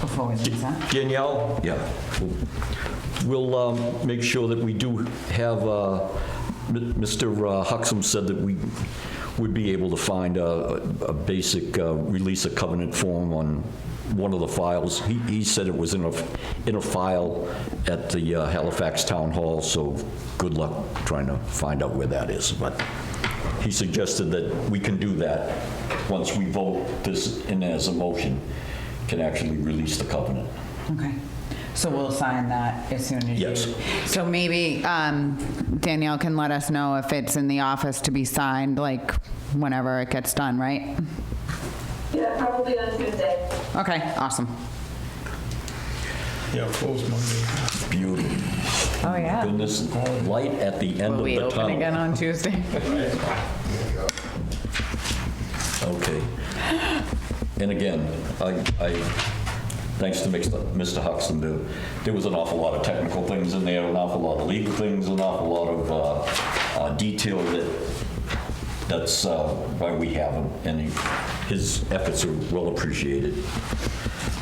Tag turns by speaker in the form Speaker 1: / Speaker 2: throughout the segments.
Speaker 1: before we leave, huh?
Speaker 2: Danielle? Yeah. We'll um, make sure that we do have, uh, M- Mr. Huxham said that we would be able to find a a basic uh, release of covenant form on one of the files. He he said it was in a in a file at the uh, Halifax Town Hall, so good luck trying to find out where that is. But he suggested that we can do that once we vote this in as a motion, can actually release the covenant.
Speaker 1: Okay. So we'll sign that as soon as you...
Speaker 2: Yes.
Speaker 3: So maybe um, Danielle can let us know if it's in the office to be signed, like whenever it gets done, right?
Speaker 4: Yeah, probably on Tuesday.
Speaker 3: Okay, awesome.
Speaker 5: Yeah, close Monday.
Speaker 2: Beauty.
Speaker 3: Oh, yeah.
Speaker 2: Goodness, light at the end
Speaker 3: Will
Speaker 2: of
Speaker 3: we
Speaker 2: the
Speaker 3: open again
Speaker 2: tunnel.
Speaker 3: on Tuesday?
Speaker 2: Okay. And again, I, I, thanks to Mix- Mr. Huxton, there, there was an awful lot of technical things in there, an awful lot of legal things, an awful lot of uh, uh, detail that, that's uh, why we have him, and he- his efforts are well appreciated.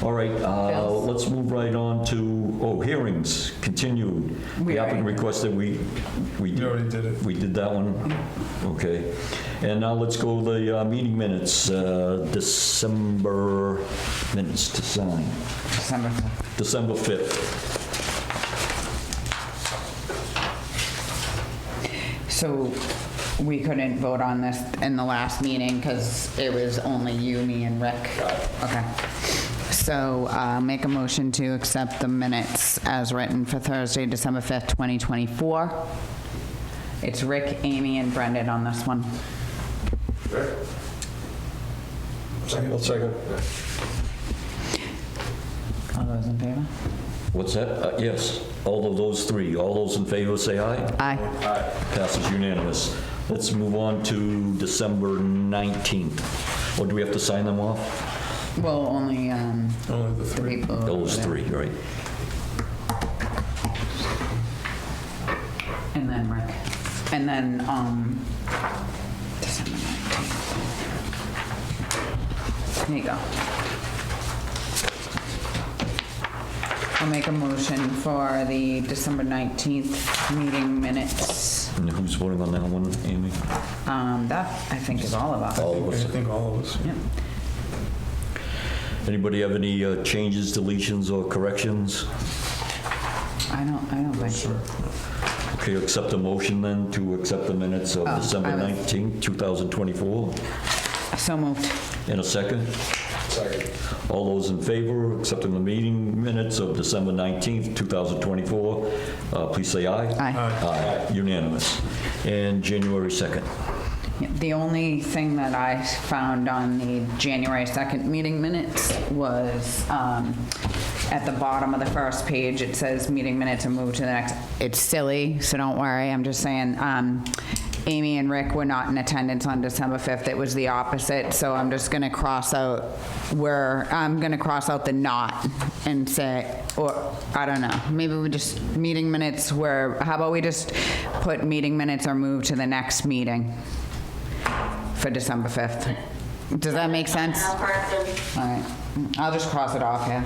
Speaker 2: All right, uh,
Speaker 3: Bills.
Speaker 2: let's move right on to, oh, hearings, continued.
Speaker 3: We
Speaker 2: The
Speaker 3: already-
Speaker 2: applicant requested we, we
Speaker 5: We already did it.
Speaker 2: we did that one? Okay. And now let's go to the uh, meeting minutes, uh, December minutes to sign,
Speaker 1: December 5th.
Speaker 2: December 5th.
Speaker 3: So we couldn't vote on this in the last meeting because it was only you, me, and Rick. Okay. So uh, make a motion to accept the minutes as written for Thursday, December 5th, 2024. It's Rick, Amy, and Brendan on this one.
Speaker 5: I'll second.
Speaker 1: All those in favor?
Speaker 2: What's that? Uh, Yes, all of those three. All those in favor say aye.
Speaker 3: Aye.
Speaker 2: Aye. Passes unanimous. Let's move on to December 19th. Or do we have to sign them off?
Speaker 3: Well, only um,
Speaker 5: Only the
Speaker 3: the
Speaker 5: three.
Speaker 3: people.
Speaker 2: Those three, right?
Speaker 3: And then Rick. And then, um, December 19th. There you go. I'll make a motion for the December 19th meeting minutes.
Speaker 2: And who's voting on that one, Amy?
Speaker 3: Um, that, I think, is all of us.
Speaker 2: All of
Speaker 5: I
Speaker 2: us.
Speaker 5: think all of us.
Speaker 3: Yep.
Speaker 2: Anybody have any uh, changes, deletions, or corrections?
Speaker 3: I don't, I don't think.
Speaker 2: Okay, accept a motion then to accept the minutes of
Speaker 3: Oh,
Speaker 2: December
Speaker 3: I was-
Speaker 2: 19, 2024.
Speaker 3: So moved.
Speaker 2: In a second? Second. All those in favor, accepting the meeting minutes of December 19th, 2024, uh, please say aye.
Speaker 3: Aye.
Speaker 2: Aye, unanimous. And January 2nd.
Speaker 3: The only thing that I found on the January 2nd meeting minutes was um, at the bottom of the first page, it says, "Meeting minutes and move to the next." It's silly, so don't worry. I'm just saying, um, Amy and Rick were not in attendance on December 5th. It was the opposite, so I'm just going to cross out where, I'm going to cross out the "not" and say, or, I don't know, maybe we just, meeting minutes where, how about we just put meeting minutes or move to the next meeting? for December 5th. Does that make sense?
Speaker 4: Now,
Speaker 3: All
Speaker 4: Carson.
Speaker 3: right, I'll just cross it off here.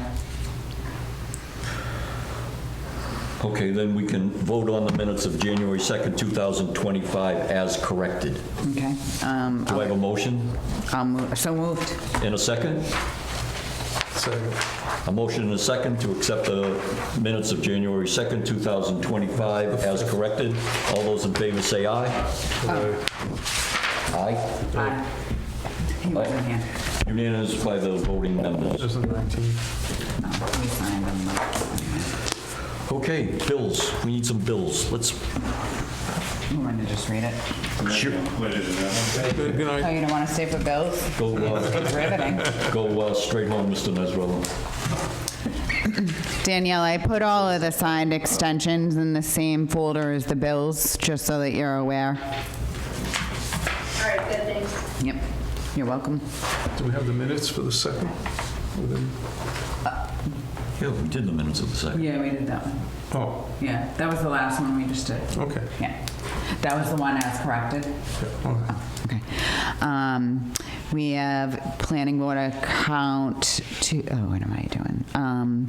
Speaker 2: Okay, then we can vote on the minutes of January 2nd, 2025 as corrected.
Speaker 3: Okay, um,
Speaker 2: Do I have a motion?
Speaker 3: I'll move, so moved.
Speaker 2: In a second?
Speaker 5: Second.
Speaker 2: A motion and a second to accept the minutes of January 2nd, 2025 as corrected. All those in favor say aye. Aye.
Speaker 3: Aye. He wasn't here.
Speaker 2: Unanimous by the voting members.
Speaker 5: This is 19.
Speaker 3: No, we signed him.
Speaker 2: Okay, bills. We need some bills. Let's,
Speaker 3: You want to just read it?
Speaker 2: sure,
Speaker 5: Good good
Speaker 3: Oh,
Speaker 5: night.
Speaker 3: you don't want to stay for bills?
Speaker 2: go, uh,
Speaker 3: It's riveting.
Speaker 2: go uh, straight home, Mr. Nesrela.
Speaker 3: Danielle, I put all of the signed extensions in the same folder as the bills, just so that you're aware.
Speaker 4: All right, good, thanks.
Speaker 3: Yep, you're welcome.
Speaker 5: Do we have the minutes for the second? With them?
Speaker 2: Yeah, we did the minutes of the second.
Speaker 3: Yeah, we did that one.
Speaker 5: Oh,
Speaker 3: Yeah, that was the last one we just did.
Speaker 5: okay.
Speaker 3: Yeah, that was the one as corrected.
Speaker 5: Yeah, all right.
Speaker 3: Okay. Um, We have planning board account to, oh, what am I doing? Um,